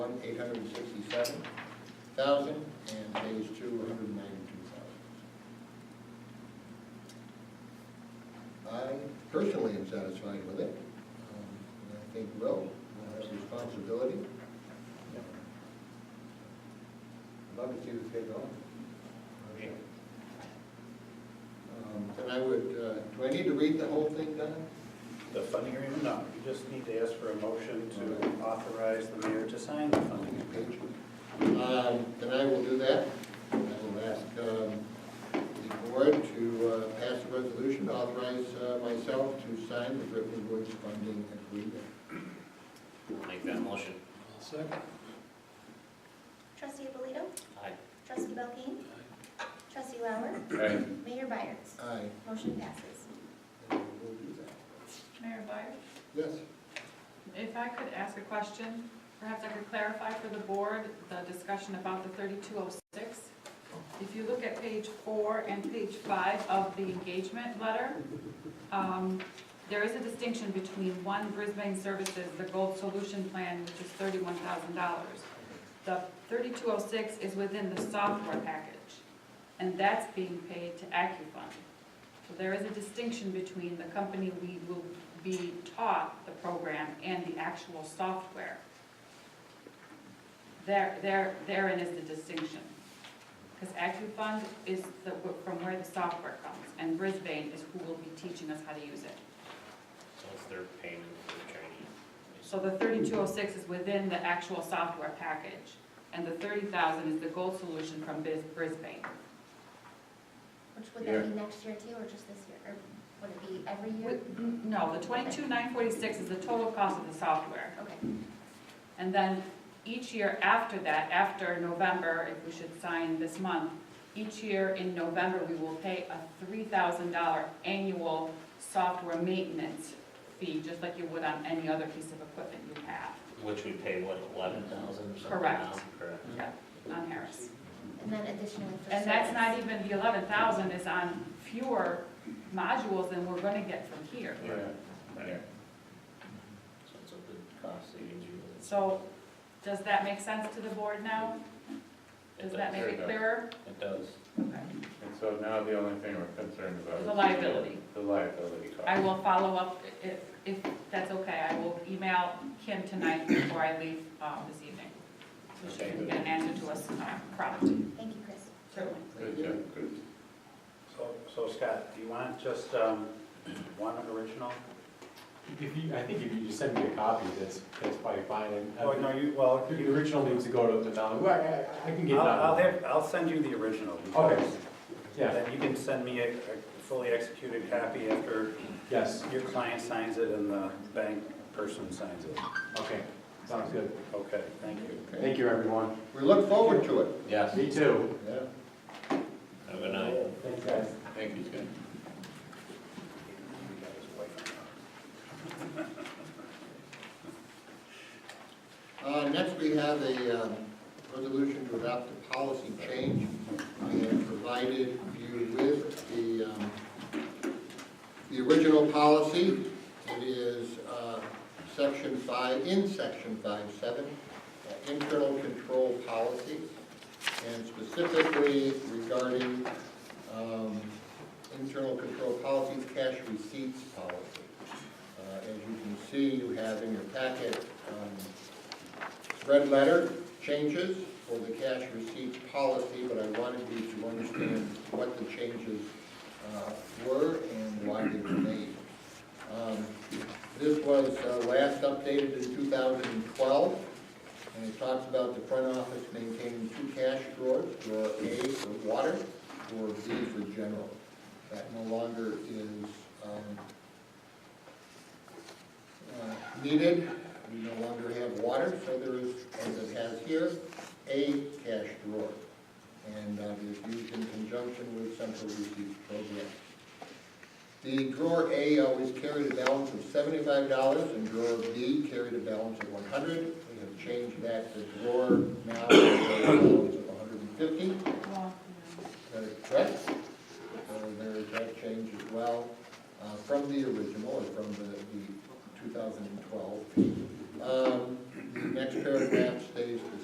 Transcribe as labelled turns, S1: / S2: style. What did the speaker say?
S1: one, eight hundred and sixty-seven thousand, and phase two, one hundred and ninety-two thousand. I personally am satisfied with it, um, and I think Will will have responsibility. I'd Love to see this get going. Um, Then I would, uh, do I need to read the whole thing, Don?
S2: The funding agreement, no, you just need to ask for a motion to authorize the mayor to sign the funding agreement.
S1: Um, Then I will do that. I will ask um, the board to uh, pass a resolution to authorize uh, myself to sign the Ripley Woods funding agreement.
S3: I'll make that motion.
S4: Second.
S5: Trustee Abolito?
S3: Aye.
S5: Trustee Belkane? Trustee Lauer?
S3: Aye.
S5: Mayor Byers?
S1: Aye.
S5: Motion passes.
S1: I will do that.
S6: Mayor Byers,
S1: Yes,
S6: if I could ask a question, perhaps I could clarify for the board the discussion about the thirty-two oh six. If you look at page four and page five of the engagement letter, um, there is a distinction between one Brisbane Services, the Gold Solution Plan, which is thirty-one thousand dollars. The thirty-two oh six is within the software package, and that's being paid to AccuFund. So there is a distinction between the company we will be taught the program and the actual software. There, there, therein is the distinction. Because AccuFund is the, from where the software comes, and Brisbane is who will be teaching us how to use it.
S3: So it's their payment for the training.
S6: So the thirty-two oh six is within the actual software package, and the thirty thousand is the gold solution from Biz, Brisbane.
S5: Which would that be next year too, or just this year? Or would it be every year?
S6: With- No, the twenty-two nine forty-six is the total cost of the software.
S5: Okay.
S6: And then each year after that, after November, if we should sign this month, each year in November, we will pay a three thousand dollar annual software maintenance fee, just like you would on any other piece of equipment you have.
S3: Which we pay, what, eleven thousand or something
S6: Correct.
S3: now? Correct.
S6: Yeah, on Harris.
S5: And then additionally for.
S6: And that's
S5: service.
S6: not even, the eleven thousand is on fewer modules than we're gonna get from here.
S3: Right. So it's a good cost savings. really.
S6: So, does that make sense to the board now?
S3: It
S6: Does that make
S7: Sure
S6: it
S7: does.
S6: clearer?
S3: It does.
S6: Okay.
S7: And so now the only thing we're concerned about. is
S6: The liability.
S7: The liability cost.
S6: I will follow up, if, if that's okay, I will email Kim tonight before I leave um, this evening. So she can get an answer to us uh, promptly,
S5: Thank you, Chris.
S6: certainly.
S7: Good job, good.
S2: So, so Scott, do you want just, um, one original?
S8: If you, I think if you just send me a copy, that's, that's probably fine. And, uh,
S2: Oh, no, you, well,
S8: The
S2: you,
S8: original needs to go to the town, well, I- I, I can get
S2: I'll,
S8: that.
S2: I'll have, I'll send you the original. because
S8: Okay. Yeah,
S2: Then you can send me a, a fully executed copy after
S8: yes,
S2: your client signs it and the bank person signs it.
S8: okay, sounds good.
S2: Okay, thank you.
S1: okay.
S8: Thank you, everyone.
S1: We look forward to it.
S3: Yes.
S8: Me too.
S1: Yeah.
S3: Have a good night.
S8: Thanks, guys.
S7: Thank you, Scott.
S1: Uh, Next, we have a um, resolution to adopt a policy change. I have provided you with the, um, the original policy. It is uh, section five, in section five seven, uh, internal control policies, and specifically regarding um, internal control policies, cash receipts policy. Uh, As you can see, you have in your packet um, red letter changes for the cash receipts policy, but I wanted you to understand what the changes uh, were and why they were made. Um, This was uh, last updated in 2012, and it talks about the front office maintaining two cash drawers, drawer A for water, drawer B for general. That no longer is um, uh, needed. We no longer have water, so there is, as it has here, a cash drawer. And uh, it is used in conjunction with central receipts program. The drawer A always carried a balance of seventy-five dollars and drawer B carried a balance of one hundred. We have changed that to drawer now carries a balance of one hundred and fifty.
S6: Well,
S1: That is correct. So there is that change as well uh, from the original or from the the 2012. Um, The next paragraph stays